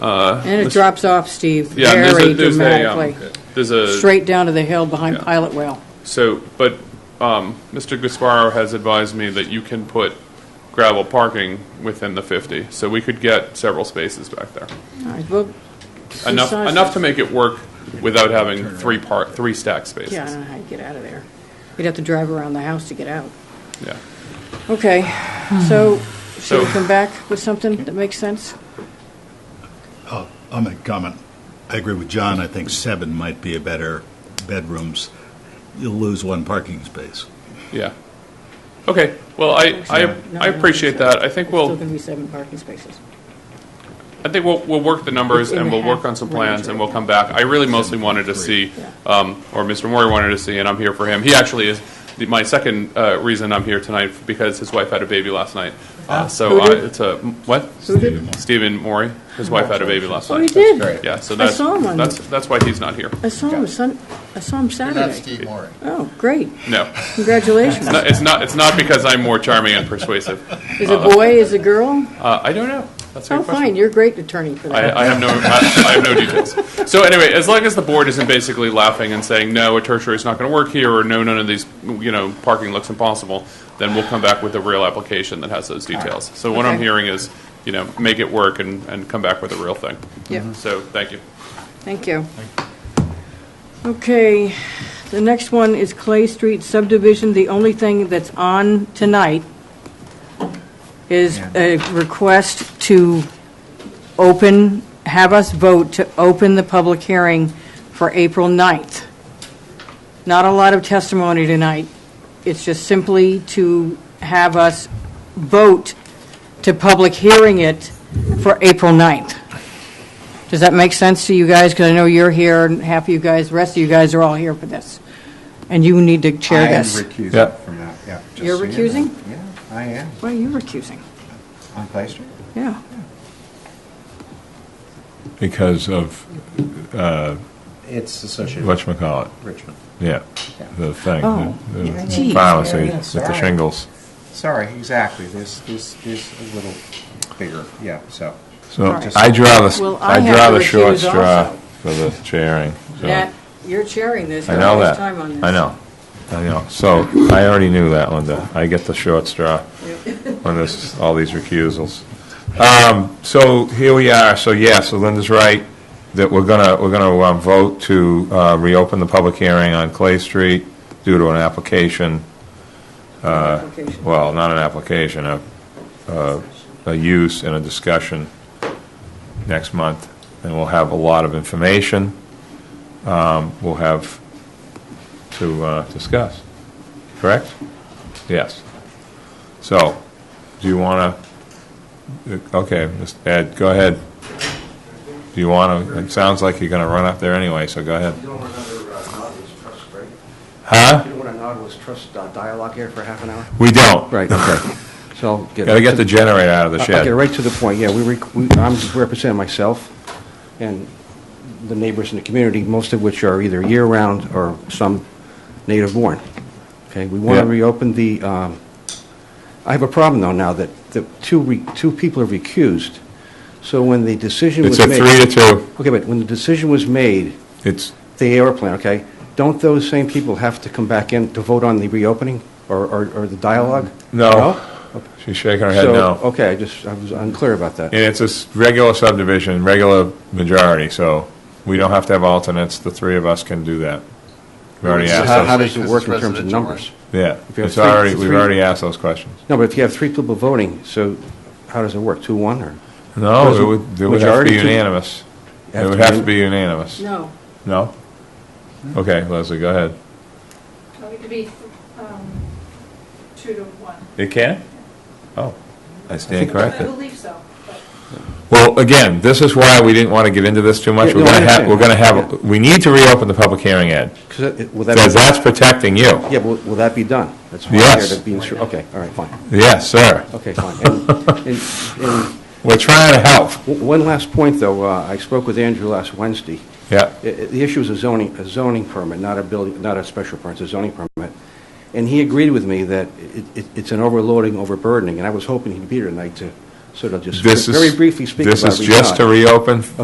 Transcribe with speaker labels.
Speaker 1: Uh,
Speaker 2: And it
Speaker 1: this-
Speaker 2: drops off, Steve,
Speaker 1: yeah, there's a-
Speaker 2: very
Speaker 1: there's a, um,
Speaker 2: dramatically,
Speaker 1: There's a.
Speaker 2: straight down to the hill behind
Speaker 1: Yeah.
Speaker 2: Pilot Well.
Speaker 1: So, but um, Mr. Gasparo has advised me that you can put gravel parking within the 50, so we could get several spaces back there.
Speaker 2: All right, well,
Speaker 1: Enough,
Speaker 2: besides-
Speaker 1: enough to make it work without having three part, three stack
Speaker 2: Yeah, I don't
Speaker 1: spaces.
Speaker 2: know how you get out of there. You'd have to drive around the house to get out.
Speaker 1: Yeah.
Speaker 2: Okay, so should we
Speaker 1: So-
Speaker 2: come back with something that makes sense?
Speaker 3: I'll, I'll make a comment. I agree with John. I think seven might be a better bedrooms. You'll lose one parking space.
Speaker 1: Yeah. Okay, well, I, I,
Speaker 2: No,
Speaker 1: I
Speaker 2: no,
Speaker 1: appreciate
Speaker 2: it's-
Speaker 1: that. I think
Speaker 2: it's
Speaker 1: we'll.
Speaker 2: Still going to be seven parking spaces.
Speaker 1: I think we'll, we'll work the
Speaker 2: It's
Speaker 1: numbers
Speaker 2: in
Speaker 1: and
Speaker 2: the
Speaker 1: we'll work
Speaker 2: half
Speaker 1: on some
Speaker 2: range
Speaker 1: plans and
Speaker 2: right
Speaker 1: we'll come back. I really mostly wanted to see, um, or Mr. Mori wanted to see, and I'm here for him. He actually is the- my second uh, reason I'm here tonight because his wife had a baby last night. Uh, So
Speaker 2: Who
Speaker 1: uh,
Speaker 2: did?
Speaker 1: it's a, what?
Speaker 2: Who did?
Speaker 1: Stephen Mori, his wife had a baby last
Speaker 2: Oh, he
Speaker 1: night.
Speaker 2: did?
Speaker 1: Yeah, so
Speaker 2: I
Speaker 1: that's,
Speaker 2: saw him on-
Speaker 1: that's, that's why he's not here.
Speaker 2: I saw him Sun, I saw him
Speaker 4: You're not
Speaker 2: Saturday.
Speaker 4: Steve Maury.
Speaker 2: Oh, great,
Speaker 1: No,
Speaker 2: congratulations.
Speaker 1: No, it's not, it's not because I'm more charming and persuasive.
Speaker 2: Is it a boy, is it a girl?
Speaker 1: Uh, I don't know. That's a
Speaker 2: Oh,
Speaker 1: good question.
Speaker 2: fine, you're a great attorney for that.
Speaker 1: I, I have no, I, I have no details. So anyway, as long as the board isn't basically laughing and saying, no, a tertiary is not going to work here, or no, none of these, you know, parking looks impossible, then we'll come back with a real application that has those details. So what I'm
Speaker 2: Okay.
Speaker 1: hearing is, you know, make it work and, and come back with a real thing.
Speaker 2: Yep.
Speaker 1: So, thank you.
Speaker 2: Thank you. Okay, the next one is Clay Street subdivision. The only thing that's on tonight is a request to open, have us vote to open the public hearing for April 9th. Not a lot of testimony tonight. It's just simply to have us vote to public hearing it for April 9th. Does that make sense to you guys? Because I know you're here, and half of you guys, the rest of you guys are all here for this. And you need to chair
Speaker 5: I
Speaker 2: this.
Speaker 5: am recusing from that, yeah. just
Speaker 2: You're
Speaker 5: so you know.
Speaker 2: recusing?
Speaker 5: Yeah, I am,
Speaker 2: Why are you recusing?
Speaker 5: on Clay Street.
Speaker 2: Yeah.
Speaker 6: Because of,
Speaker 5: It's associated with
Speaker 6: whatchamacallit,
Speaker 5: Richmond.
Speaker 6: yeah, the thing,
Speaker 2: Oh,
Speaker 6: the- the
Speaker 2: geez.
Speaker 6: violence
Speaker 5: Yeah, yeah,
Speaker 6: with the
Speaker 5: sorry.
Speaker 6: shingles.
Speaker 5: Sorry, exactly, this, this, this a little bigger, yeah, so.
Speaker 6: So
Speaker 2: Right.
Speaker 6: I draw
Speaker 2: Well,
Speaker 6: the,
Speaker 2: I
Speaker 6: I
Speaker 2: have
Speaker 6: draw
Speaker 2: to
Speaker 6: the short
Speaker 2: recuse
Speaker 6: straw
Speaker 2: also.
Speaker 6: for the chairing. so-
Speaker 2: Matt, you're chairing this.
Speaker 6: I
Speaker 2: You're
Speaker 6: know
Speaker 2: all this
Speaker 6: that.
Speaker 2: time on this.
Speaker 6: I know, I know. So I already knew that, Linda. I get the short straw on this, all these recusals. Um, So here we are, so yeah, so Linda's right, that we're gonna, we're gonna um, vote to uh, reopen the public hearing on Clay Street due to an application uh,
Speaker 2: Application.
Speaker 6: well, not an application, a, a, a use and a discussion next month, and we'll have a lot of information, um, we'll have to, uh, discuss, correct? Yes. So, do you wanna, okay, Mr. Ed, go ahead. Do you wanna, it sounds like you're gonna run up there anyway, so go ahead.
Speaker 7: You don't want another uh, Nautilus Trust, right?
Speaker 6: Huh?
Speaker 7: You don't want a Nautilus Trust uh, dialogue here for half an hour?
Speaker 6: We don't.
Speaker 7: Right, okay. So I'll get.
Speaker 6: Gotta get the generator out of the
Speaker 7: I'll
Speaker 6: shed.
Speaker 7: get right to the point, yeah. We, rec- we- I'm representing myself and the neighbors in the community, most of which are either year-round or some native-born. Okay, we want to
Speaker 6: Yeah.
Speaker 7: reopen the, um, I have a problem though now that the two, re- two people are recused. So when the decision was
Speaker 6: It's
Speaker 7: made.
Speaker 6: a three to two,
Speaker 7: Okay, but when the decision was made,
Speaker 6: it's,
Speaker 7: the airplane, okay, don't those same people have to come back in to vote on the reopening or, or, or the dialogue?
Speaker 6: No. She's shaking her head
Speaker 7: So, oh.
Speaker 6: no.
Speaker 7: Okay, I just, I was unclear about that.
Speaker 6: And it's a s- regular subdivision, regular majority, so we don't have to have alternates. The three of us can do that. We already
Speaker 4: So
Speaker 7: So
Speaker 6: asked
Speaker 7: How, how
Speaker 6: those,
Speaker 7: does it work in terms of
Speaker 4: Residential,
Speaker 7: numbers?
Speaker 6: yeah.
Speaker 7: if you have
Speaker 6: It's
Speaker 7: three-
Speaker 6: already, we've
Speaker 7: three-
Speaker 6: already asked those questions.
Speaker 7: No, but if you have three people voting, so how does it work, two, one, or?
Speaker 6: No,
Speaker 7: Doesn't
Speaker 6: it would, it would have to
Speaker 7: majority
Speaker 6: be
Speaker 7: to-
Speaker 6: unanimous.
Speaker 7: Have
Speaker 6: It
Speaker 7: to
Speaker 6: would have
Speaker 7: be-
Speaker 6: to be unanimous.
Speaker 2: No.
Speaker 6: No? Okay, Leslie, go ahead.
Speaker 8: It could be um, two to one.
Speaker 6: It can? Oh, I stand
Speaker 8: I
Speaker 6: corrected.
Speaker 8: believe so, but
Speaker 6: Well, again, this is why we didn't want to get into this too much.
Speaker 7: Yeah,
Speaker 6: We're
Speaker 7: no, I
Speaker 6: going to have,
Speaker 7: understand.
Speaker 6: we're going to
Speaker 7: Yeah.
Speaker 6: have, we need to reopen the public hearing, Ed,
Speaker 7: 'cause it- will that be-
Speaker 6: because that's protecting you.
Speaker 7: Yeah, will, will that be done? That's why
Speaker 6: Yes.
Speaker 7: I'm here to be sure, okay, all right, fine,
Speaker 6: Yes, sir.
Speaker 7: okay, fine. And- And, and
Speaker 6: We're trying to help.
Speaker 7: w- one last point, though, uh, I spoke with Andrew last Wednesday.
Speaker 6: Yeah.
Speaker 7: I- I- The issue is a zoning, a zoning permit, not a building, not a special permit, it's a zoning permit. And he agreed with me that it- it- it's an overloading, overburdening, and I was hoping he'd be here tonight to So they'll just
Speaker 6: This is.
Speaker 7: very briefly speak about
Speaker 6: This is just to
Speaker 7: Riyadh.
Speaker 6: reopen